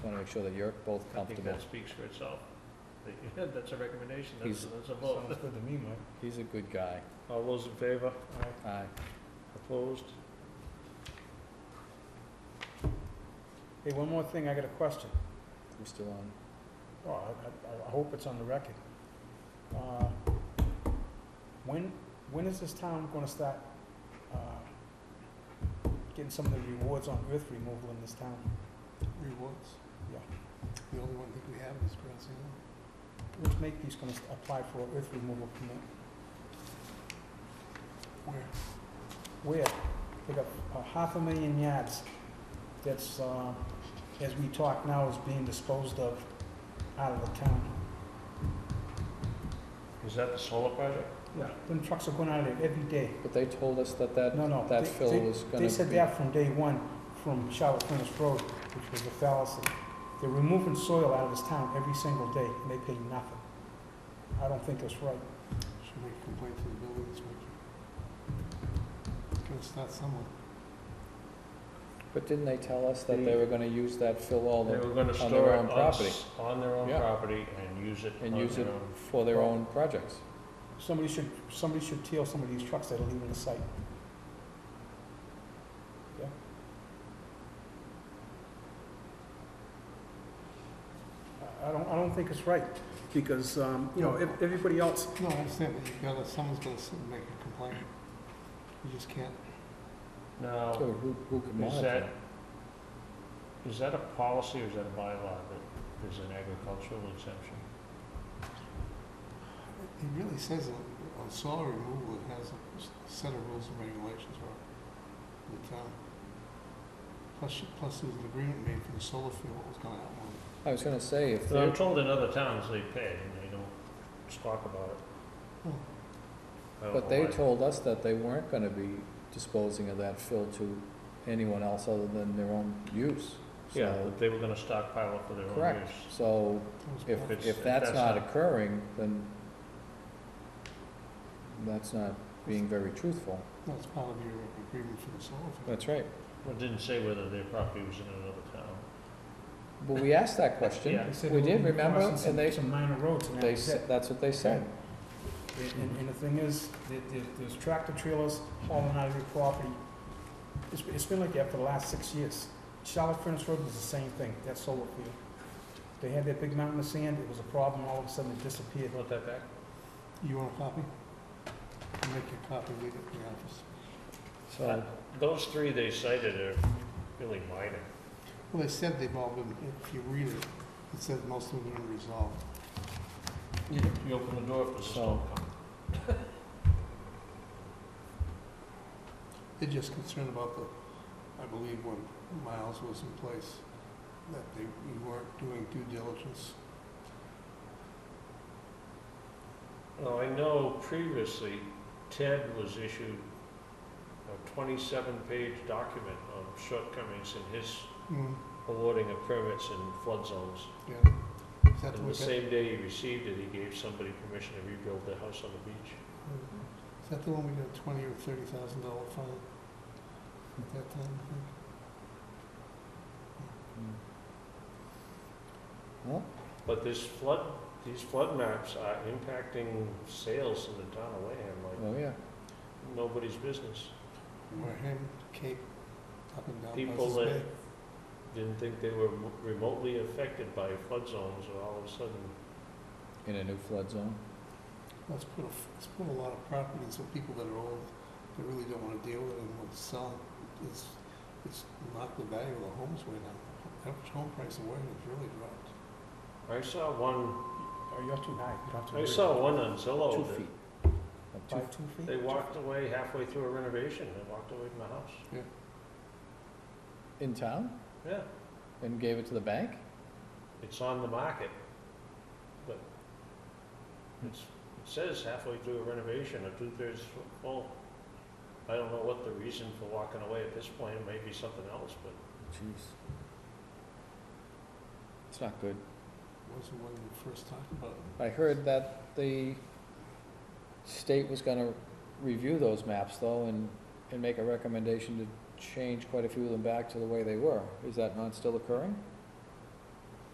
Want to make sure that you're both I think comfortable. that speaks for itself. That- That's a recommendation, that's, He's- that's a Sounds vote. good to me, Mike. He's a good guy. All those in favor? Aye. Aye. Opposed? Hey, one more thing, I got a question. We're still on. Oh, I, I, I hope it's on the record. Uh, When, when is this town gonna start, uh, getting some of the rewards on earth removal in this town? Rewards? Yeah. The only one thing we have is Brazil. Which make these gonna st- apply for earth removal permit? Where? Where? They got uh, half a million yards that's, uh, as we talk now, is being disposed of out of the town. Is that the solar project? Yeah. Them trucks are going out of there every day. But they told us that that, No, no. that they- fill they- was gonna be. They said that from day one, from Charlotte Furnace Road, which was a fallacy. They're removing soil out of this town every single day, and they pay nothing. I don't think that's right. Should make a complaint to the building inspector. Gotta start somewhere. But didn't they tell us that they were gonna use that fill all They the, were gonna their store own it us on their own Yeah. property and use it on and use their it own. for their own projects? Somebody should, somebody should tail some of these trucks that are leaving the site. Yeah. I- I don't, I don't think it's right, because, um, you know, ev- everybody else, No, I understand, but you've gotta, someone's gonna sit and make a complaint. You just can't. So Now, who, who could is monitor? that, is that a policy or is that a bylaw that there's an agricultural exemption? It really says on, on soil removal, it has a s- set of rules and regulations for the town. Plus, you- plus there's an agreement made for the solar field, what was gonna happen. I was gonna say, if Now, I'm they're, told in other towns they pay and they don't talk about it. Oh. I don't but know they why. told us that they weren't gonna be disposing of that fill to anyone else other than their own use. Yeah, So- but they were gonna stockpile it for their own Correct. use. So That was If, part- it's- if that's not occurring, then that's not being very truthful. That's part of your agreement for the solar field. That's right. Well, It didn't say whether their property was in another town. But we asked that question. Yeah. they said We it did, would be remember? crossing And some- they- Some minor roads, and that They, was s- it. that's what they said. And, and the thing is, there, there- there's tractor trailers hauling out of your property. It's, it's been like that for the last six years. Charlotte Furnace Road was the same thing, that solar field. They had that big mountain of sand, it was a problem, all of a sudden it disappeared. Want that back? You want a copy? I'll make you a copy, leave it in the office. So, Those three they cited are really minor. Well, they said they've all been, if you read it, it says most of them are resolved. You open the door for the So- storm comes. They're just concerned about the, I believe when Miles was in place, that they, we weren't doing due diligence. Now, I know previously Ted was issued a twenty-seven page document on shortcomings in his Hmm, awarding of permits in flood zones. yeah. Is that the And way the that, same day he received it, he gave somebody permission to rebuild their house on the beach. is that the one we got twenty or thirty thousand dollar fine at that time, I think? well, But this flood, these flood maps are impacting sales in the town of Wareham like oh yeah. nobody's business. Mm-hmm. Wareham, Cape, up and down. People Buzzards that- Bay. Didn't think they were remotely affected by flood zones, and all of a sudden, In a new flood zone. Let's put, a f- let's put a lot of properties of people that are old, that really don't wanna deal with it and want to sell. It's, it's knocked the value of the homes way down. Average home price of Wareham has really dropped. I saw one, Oh, you're too high, you don't have to. I worry. saw one on Two Zillow feet. that Up By two- two feet? they walked away halfway through a renovation, they walked away from the house. In town Yeah, and gave it to the bank? it's on the market, but it's, it says halfway through a renovation or two-thirds full. I don't know what the reason for walking away at this point, it may be something else, but Jeez. It's not good. Wasn't when we first talked about it. I heard that the state was gonna review those maps though and, and make a recommendation to change quite a few of them back to the way they were. Is that not still occurring?